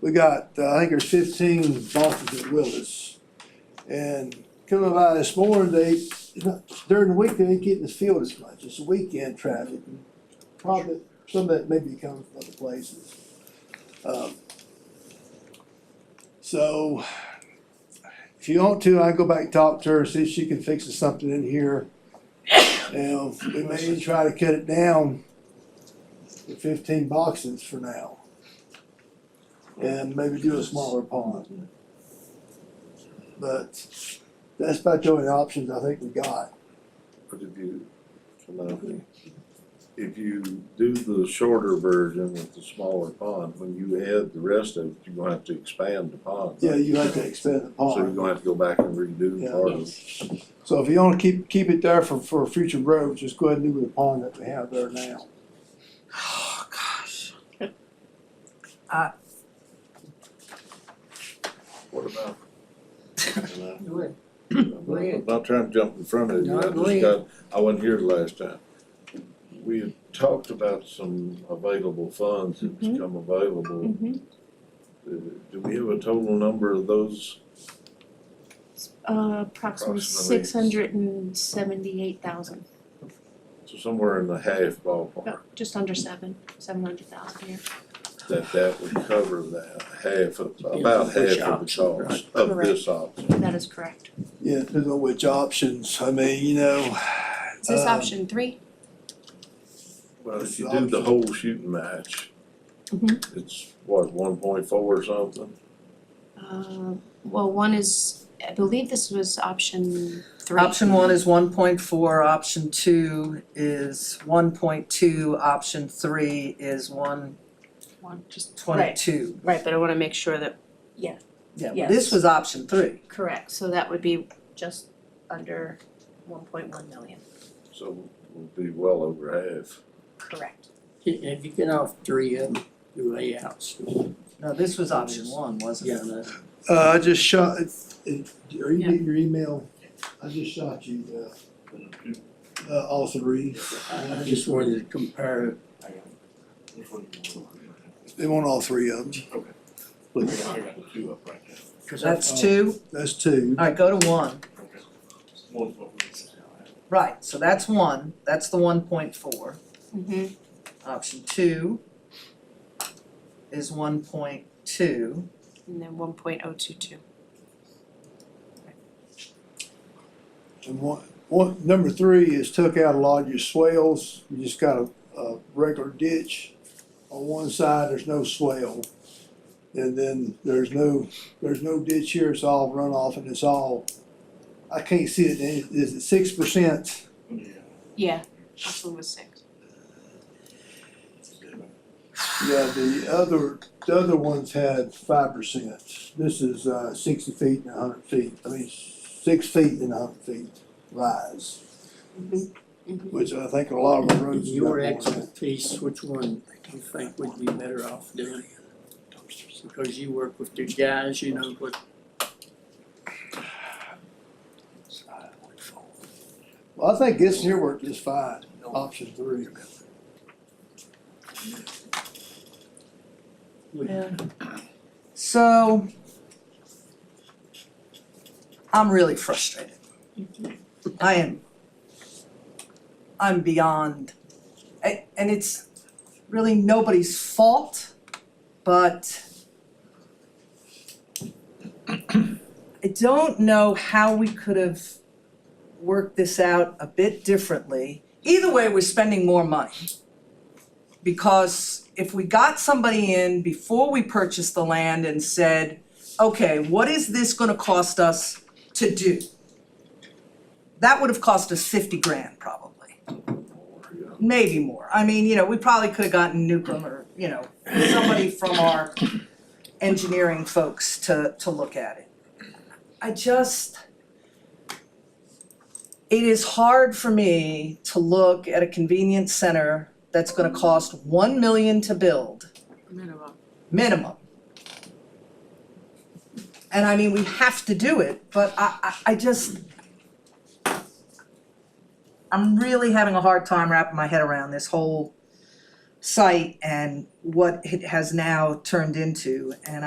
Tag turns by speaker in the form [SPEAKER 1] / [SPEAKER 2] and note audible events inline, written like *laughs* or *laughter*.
[SPEAKER 1] we got, uh, I think there's fifteen bosses at Willis. And coming by this morning, they, during the week, they ain't getting the field as much, it's weekend traffic. Probably, some of that maybe comes from other places. Um, So, if you want to, I can go back and talk to her, see if she can fix something in here. Now, we may try to cut it down to fifteen boxes for now. And maybe do a smaller pond. But that's about the only options I think we got.
[SPEAKER 2] But if you, come out here. if you do the shorter version with the smaller pond, when you add the rest of it, you're gonna have to expand the pond.
[SPEAKER 1] Yeah, you have to expand the
[SPEAKER 2] So you're
[SPEAKER 1] pond.
[SPEAKER 2] gonna have to go back and redo
[SPEAKER 1] Yeah.
[SPEAKER 2] part of it.
[SPEAKER 1] So if you wanna keep, keep it there for, for future roads, just go ahead and do the pond that we have there now.
[SPEAKER 3] Oh, gosh.
[SPEAKER 2] What about? you know,
[SPEAKER 3] *laughs* Go ahead.
[SPEAKER 2] I'm not- I'm not trying to jump in front of you,
[SPEAKER 3] No,
[SPEAKER 2] I
[SPEAKER 3] go
[SPEAKER 2] just got, I wasn't here last time. We had talked about some available funds that's
[SPEAKER 3] Mm-hmm.
[SPEAKER 4] Mhm.
[SPEAKER 2] come available.
[SPEAKER 4] Mhm.
[SPEAKER 2] Uh, Do we have a total number of those?
[SPEAKER 4] Uh, approximately
[SPEAKER 2] Approximately.
[SPEAKER 4] six hundred and seventy-eight thousand, Oh,
[SPEAKER 2] So Somewhere in the half
[SPEAKER 3] Uh,
[SPEAKER 2] ballpark.
[SPEAKER 4] just under seven, seven hundred thousand here.
[SPEAKER 2] that that would cover that half of, about half
[SPEAKER 3] which
[SPEAKER 2] of the
[SPEAKER 3] option, right.
[SPEAKER 2] cost of this option.
[SPEAKER 4] That is correct.
[SPEAKER 1] Yeah, depends on which options, I mean, you know.
[SPEAKER 4] Is this
[SPEAKER 3] Uh,
[SPEAKER 1] um,
[SPEAKER 4] option three?
[SPEAKER 2] Well, if
[SPEAKER 1] This
[SPEAKER 2] you
[SPEAKER 1] is
[SPEAKER 2] do the
[SPEAKER 1] option.
[SPEAKER 2] whole shooting match,
[SPEAKER 4] Mhm.
[SPEAKER 2] it's what, one point four or something?
[SPEAKER 4] Uh, well, one is, I believe this was option three.
[SPEAKER 3] Option one is one point four, option two is one point two, option three is one
[SPEAKER 4] One, just. Right,
[SPEAKER 3] twenty-two.
[SPEAKER 4] right, but I wanna make sure that.
[SPEAKER 3] Yeah, but
[SPEAKER 4] Yes.
[SPEAKER 3] this was option three.
[SPEAKER 4] Correct, so that would be just under one point one million,
[SPEAKER 2] So we'll be well over half.
[SPEAKER 4] correct.
[SPEAKER 5] If you get off three of them, do layouts,
[SPEAKER 3] No, this was option one, wasn't
[SPEAKER 5] yeah,
[SPEAKER 3] it?
[SPEAKER 5] no,
[SPEAKER 1] Uh, I just shot, it- it- are you getting your email? I just shot you the, uh, all three.
[SPEAKER 5] I I just wanted to compare it.
[SPEAKER 1] They want all three of them.
[SPEAKER 6] I got the two up right now.
[SPEAKER 5] 'cause I-
[SPEAKER 3] That's two,
[SPEAKER 1] That's two.
[SPEAKER 3] alright, go to one,
[SPEAKER 6] One's what we said.
[SPEAKER 3] right, so that's one, that's the one point four.
[SPEAKER 4] Mm-hmm,
[SPEAKER 3] Option two is one point two,
[SPEAKER 4] and then one point oh two two.
[SPEAKER 1] And one, one, number three is took out a lot of your swales. You just got a, a regular ditch. On one side, there's no swale. And then there's no, there's no ditch here. It's all runoff and it's all, I can't see it. Is- Is it six percent?
[SPEAKER 4] Yeah, this one was six.
[SPEAKER 1] Yeah, the other, the other ones had five percent. This is, uh, sixty feet and a hundred feet. I mean, six feet and a hundred feet rise, which I think a lot of the roads. got
[SPEAKER 5] Your
[SPEAKER 1] more than that.
[SPEAKER 5] expertise, which one you think would be better off doing? Because you work with your guys, you know, what
[SPEAKER 1] Well, I think this here worked just fine, option three.
[SPEAKER 3] Yeah. So I'm really frustrated. I am I'm beyond a- and it's really nobody's fault, but I don't know how we could have worked this out a bit differently. Either way, we're spending more money. Because if we got somebody in before we purchased the land and said, okay, what is this gonna cost us to do? That would have cost us fifty grand probably, maybe more. I mean, you know, we probably could have gotten Newcomb or, you know, somebody from our engineering folks to to look at it. I just it is hard for me to look at a convenience center that's gonna cost one million to build,
[SPEAKER 4] Minimum.
[SPEAKER 3] minimum. And I mean, we have to do it, but I I I just I'm really having a hard time wrapping my head around this whole site and what it has now turned into, and